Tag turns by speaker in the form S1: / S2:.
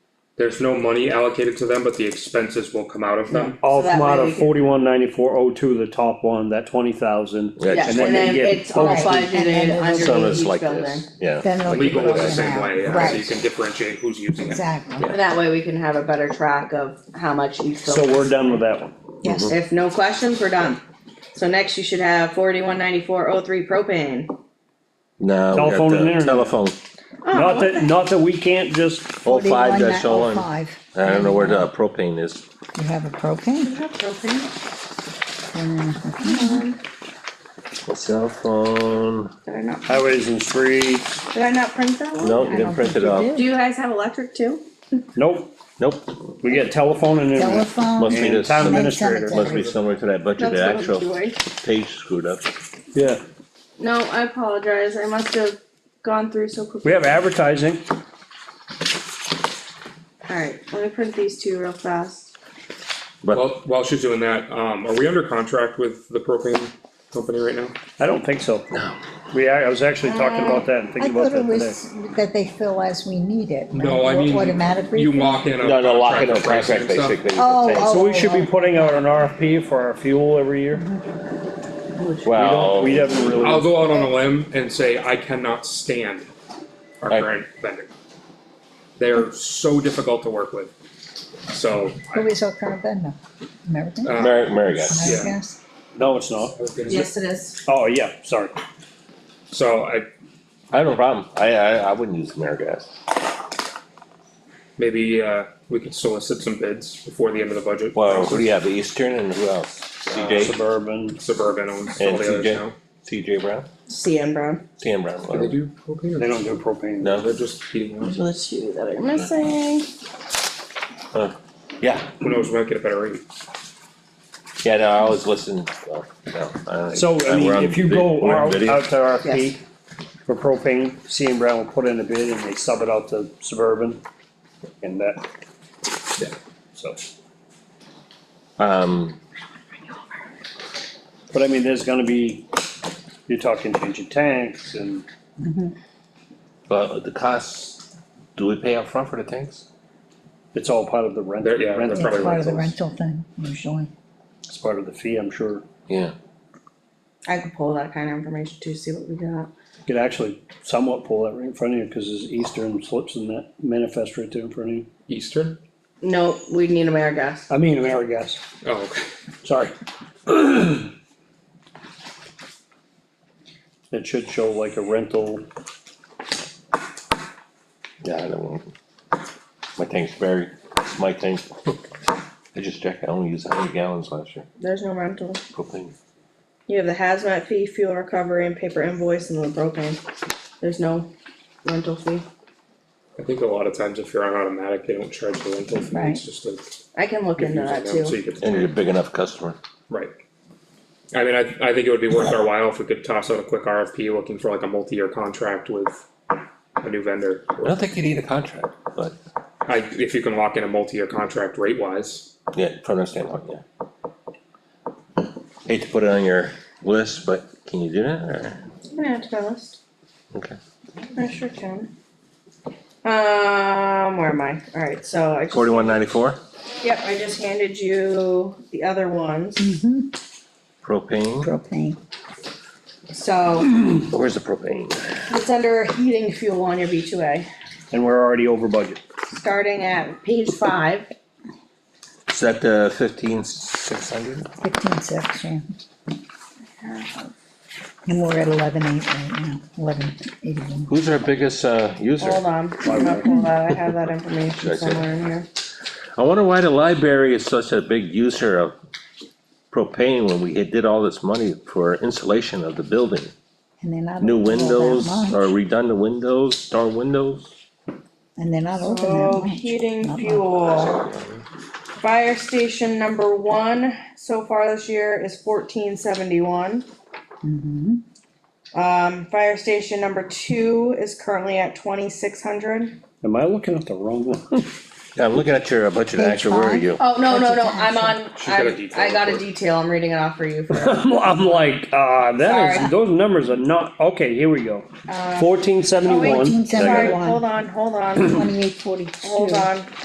S1: There's no money allocated to them, but the expenses will come out of them.
S2: All
S3: So that
S2: come out
S3: way we
S2: of
S3: can-
S2: forty-one ninety-four oh two, the top one, that twenty thousand.
S4: Yeah,
S3: Yeah,
S4: just
S3: and
S4: like
S3: then
S2: get
S3: it's all
S2: focused.
S5: And then
S3: budgeted
S5: it'll
S3: underneath each
S4: some
S3: building.
S4: is like this, yeah.
S5: Then they'll
S4: like
S5: be
S1: Legal is the
S5: broken
S1: same
S5: out.
S1: way, yeah, so you
S5: Right,
S1: can differentiate who's using it.
S5: exactly.
S3: And that way we can have a better track of how much each
S2: So
S3: building.
S2: we're done with that one.
S4: Mm-hmm.
S5: Yes,
S3: If no questions, we're done. So next you should have forty-one ninety-four oh three propane.
S4: No, we
S2: Telephone and
S4: got the
S2: internet.
S4: telephone,
S2: Not
S3: Oh.
S2: that, not that we can't just,
S4: oh five dash oh one, I
S5: 41.05.
S4: don't know where the propane is,
S5: You have a propane? uh,
S3: Propane?
S4: cell phone,
S3: Did I not,
S2: highways and streets,
S3: did I not print that one?
S4: no, you
S5: Oh, I
S4: didn't
S5: don't
S4: print
S5: think
S4: it
S5: you
S4: off,
S5: did.
S3: Do you guys have electric too?
S2: nope,
S4: nope,
S2: we got telephone and internet.
S4: must
S5: Telephone,
S4: be
S2: And
S4: this,
S2: town
S4: must
S5: minutes.
S2: administrator,
S4: be somewhere to that budget,
S3: That's
S4: the
S3: what I'm
S4: actual
S3: doing.
S4: page screwed up.
S2: yeah,
S3: No, I apologize, I must have gone through so quickly.
S2: we have advertising,
S3: Alright, let me print these two real fast.
S4: But
S1: While, while she's doing that, um, are we under contract with the propane company right now?
S2: I don't think so. We, I I was actually talking about that and
S5: I
S2: thinking about
S5: thought
S2: that
S5: it
S2: today.
S5: was that they fill as we need it.
S1: No, I mean,
S5: Automatically.
S1: you lock in a.
S4: no, no, lock in a
S1: for pricing
S4: contract
S1: and stuff.
S4: basically.
S5: Oh,
S4: that's it.
S5: oh.
S2: So we should be putting out an RFP for our fuel every year. We
S4: Well,
S5: oh.
S2: don't,
S4: Oh.
S2: we haven't
S1: I'll
S2: really,
S1: go out on a limb and say I cannot stand our
S4: Right.
S1: current vendor. They are so difficult to work with, so. I-
S5: Who is our current vendor? American?
S1: uh,
S4: Mary, Mary got it.
S1: yeah.
S5: American?
S2: no, it's not.
S1: I was gonna say-
S3: it is.
S2: Oh, yeah, sorry.
S1: So I,
S4: I have no problem, I, I, I wouldn't use Amerigas.
S1: maybe, uh, we could solicit some bids before the end of the budget.
S4: Well, Uh, who do you have, Eastern and who else? CJ,
S2: Suburban,
S1: Suburban owns all
S4: and
S1: the others
S4: CJ,
S1: now.
S4: CJ Brown,
S3: CN Brown.
S4: Stan Brown,
S1: Do they
S4: whatever.
S1: do propane or?
S2: they don't do propane.
S1: No, They're
S4: no,
S1: just heating ones.
S3: Those are the two that are missing.
S4: yeah,
S1: Who knows, we might get a better rate.
S4: yeah, no, I always listen, well, no, I don't.
S2: So, I mean,
S4: we're on
S2: if you
S4: vi-
S2: go
S4: we're on
S2: out,
S4: video.
S2: out to RFP
S3: Yes.
S2: for propane, C and Brown will put in a bid and they sub it out to Suburban and that.
S1: Yeah.
S2: So,
S4: Um,
S2: but I mean, there's gonna be, you're talking changing tanks and
S4: but the costs, do we pay up front for the tanks?
S2: it's all part of the rent.
S1: There- yeah,
S2: rent-
S1: that's
S5: It's
S1: probably
S5: part of the
S1: rentals.
S5: rental thing, usually.
S2: It's part of the fee, I'm sure.
S4: Yeah,
S3: I could pull that kind of information too, see what we
S2: You
S3: got.
S2: Could actually somewhat pull that right in front of you, cause there's Eastern slips in that manifest right there in front of you.
S1: Eastern?
S3: No, we need AmeriGas.
S2: I mean, AmeriGas,
S1: Oh, okay.
S2: sorry. It should show like a rental.
S4: yeah, I don't want, my tank's very, it's my tank. I just checked, I only used hundred gallons last year,
S3: There's no rental.
S4: propane,
S3: You have the hazmat fee, fuel recovery and paper invoice and the propane. There's no rental fee.
S1: I think a lot of times if you're on automatic, they don't charge the rental fee,
S5: Right.
S1: it's just a.
S3: I can look into that
S1: confusing them, So
S3: too.
S1: you get the
S4: and you're a big enough customer.
S1: Right. I mean, I, I think it would be worth our while if we could toss out a quick RFP looking for like a multi-year contract with a new vendor.
S4: I don't think you need a contract, but,
S1: I, if you can lock in a multi-year contract rate wise,
S4: yeah, from that standpoint, yeah. Hate to put it on your list, but can you do that, or,
S3: I'm gonna add to my list.
S4: okay,
S3: I sure can. Um, where am I? Alright, so I just,
S4: forty-one ninety-four,
S3: yep, I just handed you the other ones.
S4: propane,
S5: Propane.
S3: So
S4: where's the propane?
S3: it's under heating fuel on your B two A,
S2: And we're already over budget.
S3: starting at page five.
S4: Is that the fifteen six hundred?
S5: Fifteen six, yeah. And we're at eleven eight right now, eleven eighty-one.
S4: Who's our biggest, uh, user?
S3: Hold on, I'm not pulling that, I have that information somewhere in here.
S4: I wonder why the library is such a big user of propane when we did all this money for insulation of the building.
S5: And they're not.
S4: New
S5: open all that
S4: windows or
S5: much.
S4: redone the windows, door windows.
S5: And they're not open that
S3: So
S5: much.
S3: heating
S5: Not much.
S3: fuel. Fire station number one so far this year is fourteen seventy-one.
S5: Mhm.
S3: Um, fire station number two is currently at twenty-six hundred.
S2: Am I looking at the wrong one?
S4: Yeah, I'm looking at your budget
S5: Page
S4: actually, where are
S5: five.
S4: you?
S3: Oh, no, no, no, I'm on,
S1: She's got a
S3: I,
S1: detail
S3: I got a
S1: report.
S3: detail, I'm reading it off for you.
S2: I'm, I'm like, uh, that
S3: Sorry.
S2: is, those numbers are not, okay, here we go. Uh, Fourteen
S3: Oh, wait,
S2: seventy-one.
S3: Sorry,
S5: 1471.
S3: hold on, hold on,
S5: Twenty-eight forty-two.
S3: hold on.